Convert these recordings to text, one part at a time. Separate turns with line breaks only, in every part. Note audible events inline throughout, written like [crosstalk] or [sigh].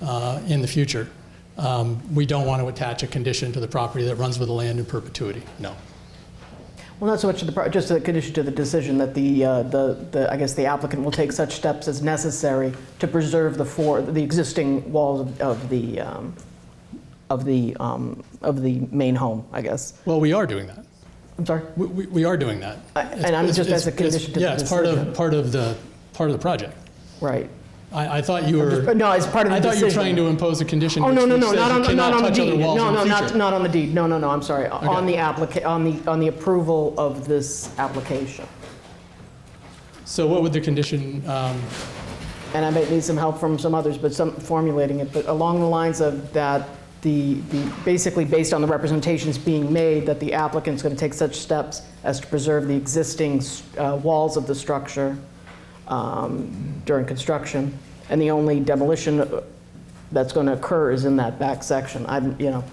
uh, in the future. Um, We don't want to attach a condition to the property that runs with the land in perpetuity, no.
Well, not so much to the, pro- just the condition to the decision that the, uh, the, the I guess the applicant will take such steps as necessary to preserve the four, the existing walls of- of the, um, of the, um, of the main home, I guess.
Well, we are doing that.
I'm sorry?
We- We we are doing that.
I- and I'm
It's-
just
it's-
as a
it's-
condition to the
Yeah, it's part of,
decision.
part of the, part of the project.
Right.
I I thought you were,
But No, it's part of the
I
decision.
thought you were trying to impose a condition
Oh,
which
no, no,
which
no,
says you
not on, not
cannot
on the
touch
deed.
other
No,
walls in
no,
the
not,
future.
not on the deed. No, no, no, I'm sorry. On
Okay.
the applica, on the, on the approval of this application.
So what would the condition, um,
and I might need some help from some others, but some formulating it, but along the lines of that, the, the, basically based on the representations being made, that the applicant's going to take such steps as to preserve the existing uh, walls of the structure um, during construction, and the only demolition uh, that's going to occur is in that back section. I'm, you know,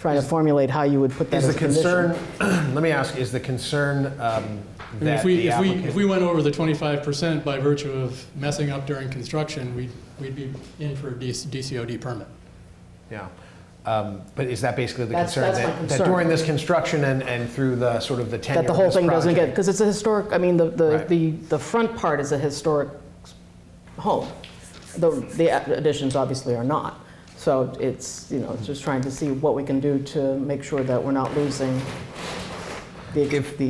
trying to formulate how you would put that
Is
as
the
a condition.
concern, [clears throat] let me ask, is the concern um,
I mean,
that
if we,
the
if we, if
applicant...
we went over the 25% by virtue of messing up during construction, we'd, we'd be in for a DC DCOD permit.
Yeah. Um, But is that basically the
That's-
concern?
that's my
that- That
concern.
during this construction and, and through the, sort of the tenure
That the
of
whole
this
thing doesn't get,
project-
because it's a historic, I mean, the, the,
Right.
the, the front part is a historic home. Though the additions obviously are not. So it's, you know, it's just trying to see what we can do to make sure that we're not losing the,
If-
the,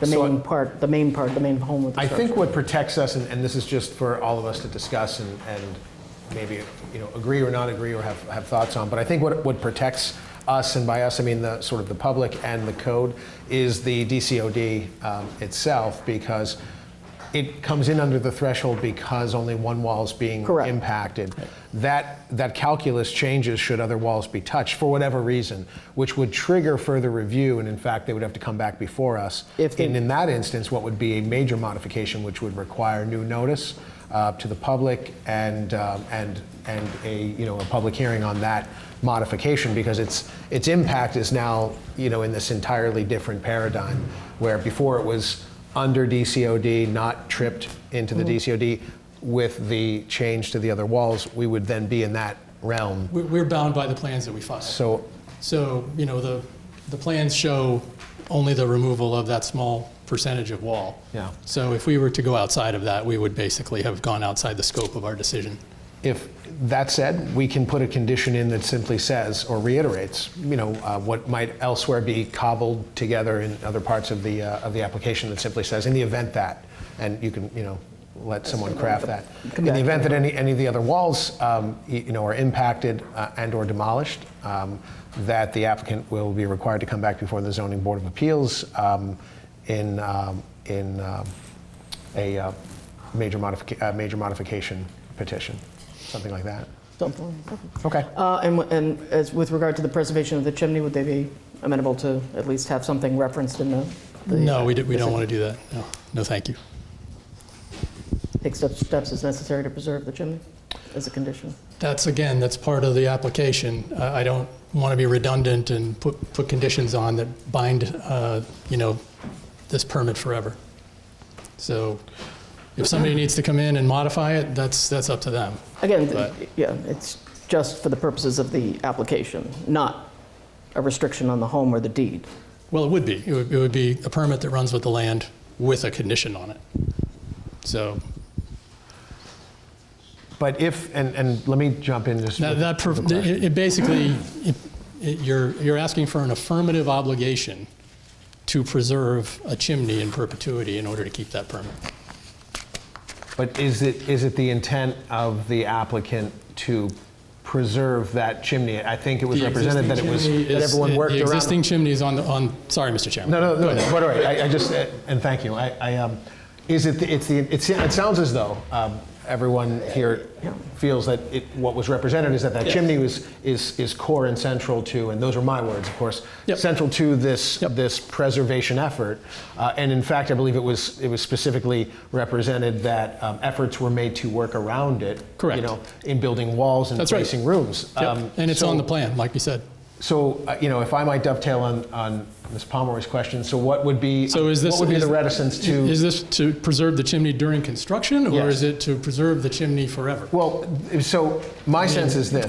the
so
main
I-
part, the main part, the main home with the
I
structure.
think what protects us, and, and this is just for all of us to discuss and, and maybe, you know, agree or not agree or have, have thoughts on, but I think what, what protects us, and by us I mean the sort of the public and the code, is the DCOD um, itself because it comes in under the threshold because only one wall is being
Correct.
impacted impacted. That, that calculus changes should other walls be touched for whatever reason, which would trigger further review, and in fact, they would have to come back before us.
If they-
And in that instance, what would be a major modification, which would require new notice uh, to the public and, um, and, and a, you know, a public hearing on that modification, because its, its impact is now, you know, in this entirely different paradigm, where before it was under DCOD, not tripped into the DCOD, with the change to the other walls, we would then be in that realm.
We- We're bound by the plans that we file.
So,
So, you know, the, the plans show only the removal of that small percentage of wall.
Yeah.
So if we were to go outside of that, we would basically have gone outside the scope of our decision.
if that said, we can put a condition in that simply says or reiterates, you know, uh, what might elsewhere be cobbled together in other parts of the uh, of the application that simply says, in the event that, and you can, you know. Let someone craft that. In the event that any, any of the other walls, um, y- you know, are impacted uh, and or demolished, um, that the applicant will be required to come back before the zoning board of appeals um, in um, in um, a uh, major modification, uh, major modification petition, something like that. Okay.
Uh, And, w- and as with regard to the preservation of the chimney, would they be amenable to at least have something referenced in the? the-
No, we don't, we don't want to do that. No, no, thank you.
Take steps, steps as necessary to preserve the chimney as a condition.
That's, again, that's part of the application. Uh, I don't want to be redundant and put, put conditions on that bind, uh, you know, this permit forever. So if somebody needs to come in and modify it, that's, that's up to them.
Again, th-
But-
yeah, it's just for the purposes of the application, not a restriction on the home or the deed.
Well, it would be. It would, it would be a permit that runs with the land with a condition on it. So
But if, and, and let me jump in just.
that,
with
that
the
per-
question.
it, it basically, it, it, you're, you're asking for an affirmative obligation to preserve a chimney in perpetuity in order to keep that permit.
But is it, is it the intent of the applicant to preserve that chimney? I think it was
The
represented that it
existing
was,
chimney
that
is-
everyone
the-
worked
The
around.
existing chimney is on the, on, sorry, Mr. Chairman.
No, no,
Go
no,
ahead.
but all right, I, I just, uh, and thank you, I, I, um, is it, the- it's the, it's, it sounds as though, um, everyone here feels that it, what was represented is that that
Yeah.
chimney was, is, is core and central to, and those are my words, of course,
Yep.
central to this,
Yep.
this preservation effort. Uh, and in fact, I believe it was, it was specifically represented that, um, efforts were made to work around it.
Correct.
You know, in building walls and
That's right.
placing rooms. Um,
Yep. And it's
so-
on the plan, like you said.
so, uh, you know, if I might dovetail on, on Ms. Pomeroy's question, so what would be,
So is this?
what would be
is-
the reticence to,
Is this to preserve the chimney during construction? Or
Yes.
is it to preserve the chimney forever?
well, so my sense is this.